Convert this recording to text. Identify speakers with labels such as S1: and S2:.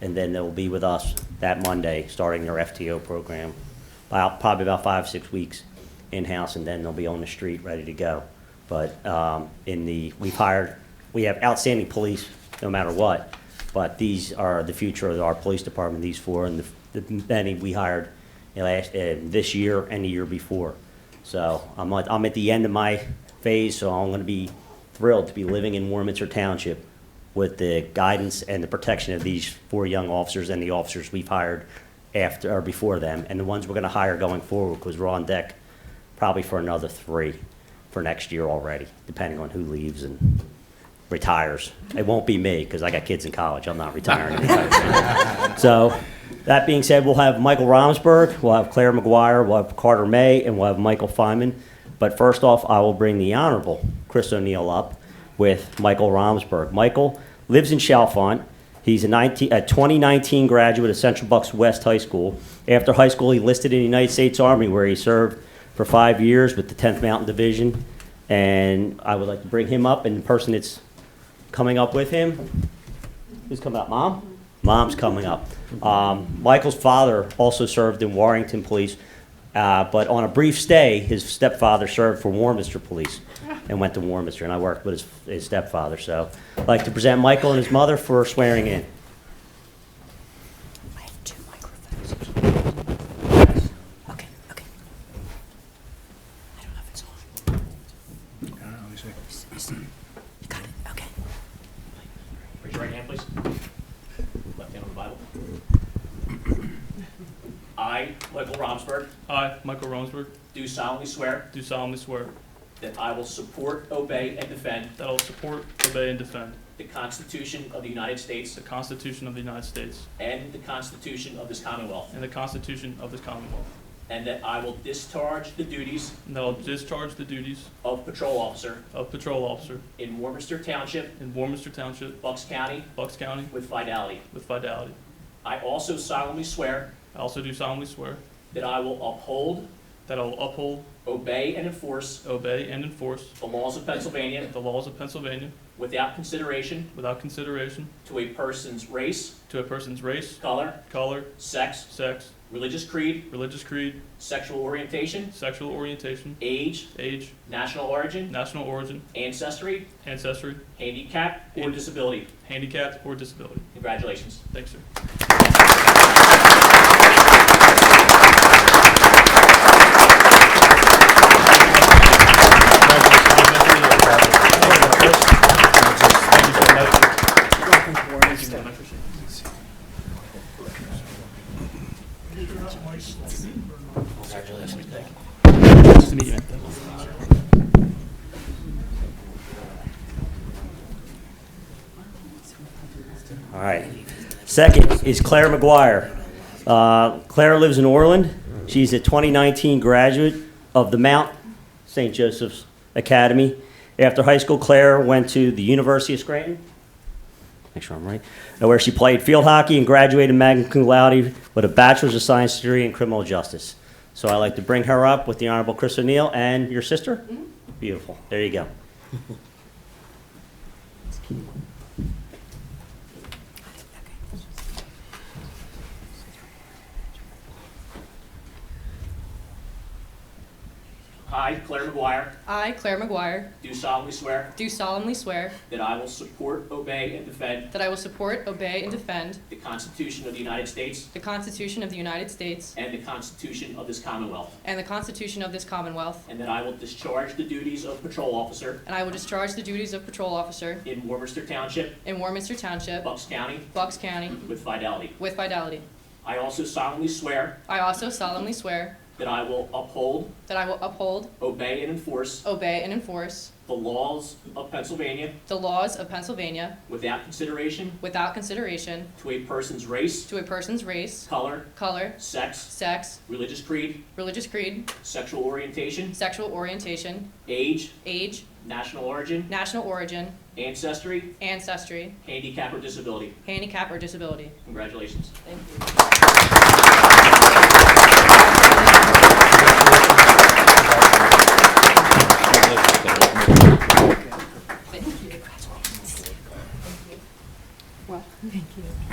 S1: and then they'll be with us that Monday, starting their FTO program. About, probably about five, six weeks in-house, and then they'll be on the street, ready to go. But um, in the, we've hired, we have outstanding police, no matter what, but these are the future of our police department, these four, and the the many we hired in last, uh, this year and the year before. So I'm at, I'm at the end of my phase, so I'm gonna be thrilled to be living in Warminster Township with the guidance and the protection of these four young officers and the officers we've hired after, or before them, and the ones we're gonna hire going forward, because we're on deck probably for another three for next year already, depending on who leaves and retires. It won't be me, because I got kids in college, I'm not retiring anytime soon. So, that being said, we'll have Michael Romsberg, we'll have Claire McGuire, we'll have Carter May, and we'll have Michael Feynman. But first off, I will bring the Honorable Chris O'Neill up with Michael Romsberg. Michael lives in Chalfont. He's a, 19, a 2019 graduate of Central Bucks West High School. After high school, he enlisted in the United States Army, where he served for five years with the 10th Mountain Division. And I would like to bring him up, and the person that's coming up with him Who's coming up, Mom? Mom's coming up. Um, Michael's father also served in Warrington Police, uh, but on a brief stay, his stepfather served for Warminster Police and went to Warminster, and I worked with his, his stepfather. So I'd like to present Michael and his mother for swearing in.
S2: I have two microphones. Okay, okay. I don't know if it's on. Is- is- You got it, okay.
S1: Raise your right hand, please. Left hand on the Bible. I, Michael Romsberg,
S3: I, Michael Romsberg,
S1: do solemnly swear
S3: do solemnly swear
S1: that I will support, obey, and defend
S3: that I will support, obey, and defend
S1: the Constitution of the United States
S3: the Constitution of the United States
S1: and the Constitution of this Commonwealth,
S3: and the Constitution of this Commonwealth,
S1: and that I will discharge the duties
S3: and that I will discharge the duties
S1: of patrol officer
S3: of patrol officer
S1: in Warmminster Township,
S3: in Warminster Township,
S1: Bucks County,
S3: Bucks County,
S1: with fidelity.
S3: with fidelity.
S1: I also solemnly swear
S3: I also do solemnly swear
S1: that I will uphold,
S3: that I will uphold,
S1: obey, and enforce
S3: obey, and enforce
S1: the laws of Pennsylvania
S3: the laws of Pennsylvania
S1: without consideration
S3: without consideration
S1: to a person's race,
S3: to a person's race,
S1: color,
S3: color,
S1: sex,
S3: sex,
S1: religious creed,
S3: religious creed,
S1: sexual orientation,
S3: sexual orientation,
S1: age,
S3: age,
S1: national origin,
S3: national origin,
S1: ancestry,
S3: ancestry,
S1: handicap, or disability.
S3: handicap, or disability.
S1: Congratulations.
S3: Thanks, sir.
S1: All right. Second is Claire McGuire. Uh, Claire lives in Orland. She's a 2019 graduate of the Mount St. Joseph's Academy. After high school, Claire went to the University of Scranton, make sure I'm right, uh, where she played field hockey and graduated magna cum laude with a Bachelor's of Science degree in criminal justice. So I'd like to bring her up with the Honorable Chris O'Neill and your sister. Beautiful. There you go.
S4: I, Claire McGuire,
S5: I, Claire McGuire,
S4: do solemnly swear
S5: do solemnly swear
S4: that I will support, obey, and defend
S5: that I will support, obey, and defend
S4: the Constitution of the United States
S5: the Constitution of the United States
S4: and the Constitution of this Commonwealth,
S5: and the Constitution of this Commonwealth,
S4: and that I will discharge the duties of patrol officer
S5: and I will discharge the duties of patrol officer
S4: in Warmminster Township,
S5: in Warminster Township,
S4: Bucks County,
S5: Bucks County,
S4: with fidelity.
S5: with fidelity.
S4: I also solemnly swear
S5: I also solemnly swear
S4: that I will uphold,
S5: that I will uphold,
S4: obey, and enforce
S5: obey, and enforce
S4: the laws of Pennsylvania
S5: the laws of Pennsylvania
S4: without consideration
S5: without consideration
S4: to a person's race,
S5: to a person's race,
S4: color,
S5: color,
S4: sex,
S5: sex,
S4: religious creed,
S5: religious creed,
S4: sexual orientation,
S5: sexual orientation,
S4: age,
S5: age,
S4: national origin,
S5: national origin,
S4: ancestry,
S5: ancestry,
S4: handicap, or disability.
S5: handicap, or disability.
S4: Congratulations.
S5: Thank you.
S2: Well, thank you.